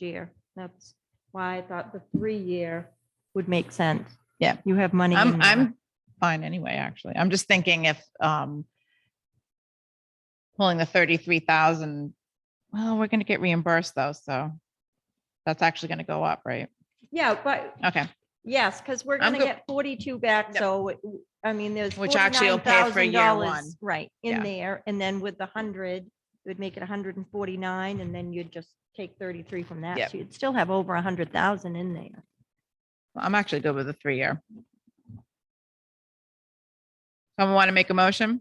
year. That's why I thought the three-year would make sense. Yeah. You have money. in I'm, there. I'm fine anyway, actually. I'm just thinking if, um, pulling the thirty-three thousand, well, we're gonna get reimbursed though, so that's actually gonna go up, right? Yeah, but Okay, yes, because we're I'm going to go- get 42 back. Yep. So, it- I mean, there's. Which actually will pay for year $49,000, one. Right, Yeah. in there. And then with the 100, it would make it 149 and then you'd just take 33 from Yep. that. So you'd still have over 100,000 in there. Well, I'm actually good with the three-year. Someone want to make a motion?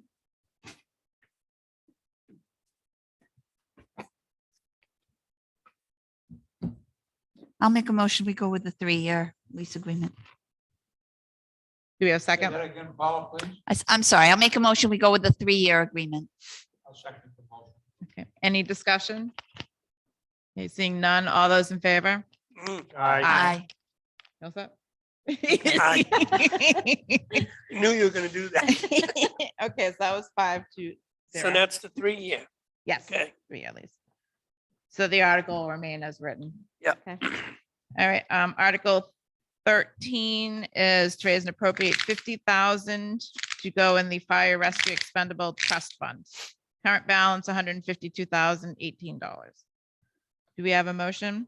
I'll make a motion. We go with the three-year lease agreement. Do we have a Say second? that again, Paula, please. I, am sorry. I'll make a motion. We go with the three-year agreement. I'll second the motion. Okay, any discussion? Okay, seeing none, all those in favor? Mm, Aye. How's that? Knew you were gonna do that. Okay, so that was five to So zero. that's the three year. Yes, Okay. three at least. So the article will remain as written. Yep. Okay. All right, um, Article thirteen is to raise and appropriate fifty thousand to go in the fire rescue expendable trust fund. Current balance, one hundred and fifty-two thousand eighteen dollars. Do we have a motion?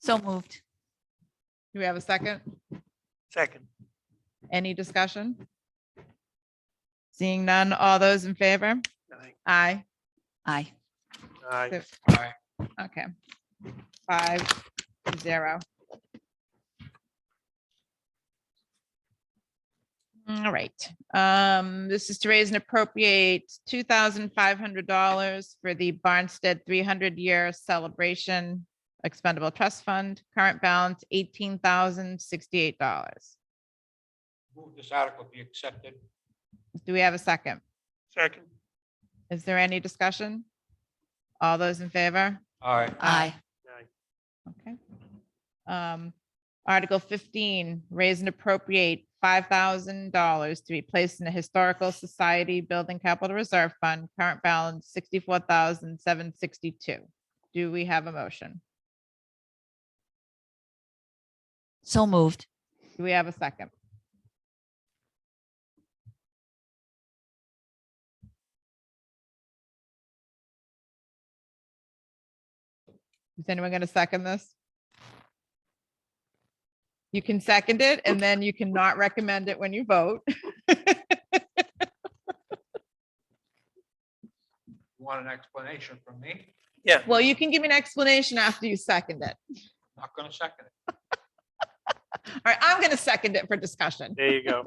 So moved. Do we have a second? Second. Any discussion? Seeing none, all those in favor? Aye. Aye. Aye. Aye. Okay. Five, zero. All right, um, this is to raise and appropriate two thousand five hundred dollars for the Barnstead three hundred year celebration expendable trust fund, current balance eighteen thousand sixty-eight dollars. Move this article be accepted. Do we have a second? Second. Is there any discussion? All those in favor? Aye. Aye. Aye. Okay. Um, Article fifteen, raise and appropriate five thousand dollars to be placed in the Historical Society Building Capital Reserve Fund, current balance sixty-four thousand seven sixty-two. Do we have a motion? So moved. Do we have a second? Is anyone going to second this? You can second it and then you cannot recommend it when you vote. You Want an explanation from me? Yeah. Well, you can give me an explanation after you second it. Not going to second it. All right, I'm going to second it for discussion. There you go.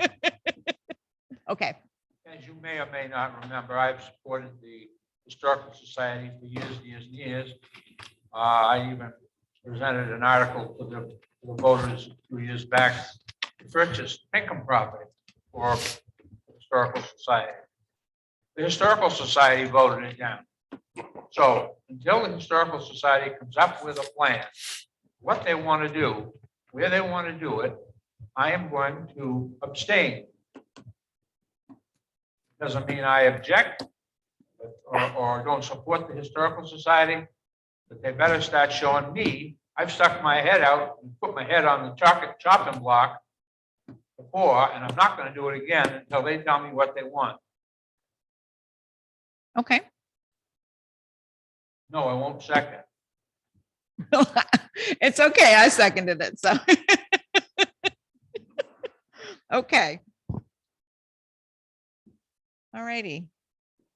Okay, As you may or may not remember, I've supported the Historical Society for years, and years, and years. Uh, I even presented an article to the, to the voters a few years back to purchase Pinkham property for Historical Society. The Historical Society voted it down. So until the Historical Society comes up with a plan, what they want to do, where they want to do it, I am going to abstain. Doesn't mean I object but- or, or don't support the Historical Society, but they better start showing me. I've stuck my head out and put my head on the chopping, chopping block before, and I'm not going to do it again until they tell me what they want. okay. No, I won't second. It's okay, I seconded it, so. Okay. All righty,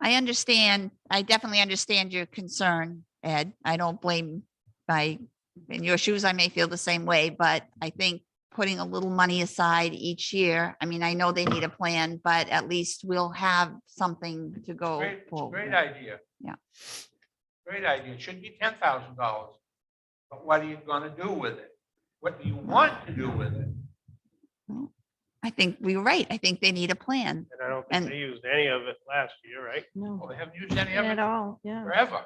I understand. I definitely understand your concern, Ed. I don't blame my, in your shoes, I may feel the same way, but I think putting a little money aside each year, I mean, I know they need a plan, but at least we'll have something to go. Great, it's a forward great with. idea. Yeah. Great idea. It should be ten thousand dollars. But what are you gonna do with it? What do you want to do with it? I think we were right. I think they need a plan. And I don't And- think they used any of it last year, right? No, Well, they haven't used any of at it all. Yeah. forever.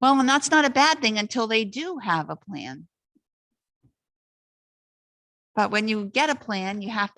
Well, and that's not a bad thing until they do have a plan. But when you get a plan, you have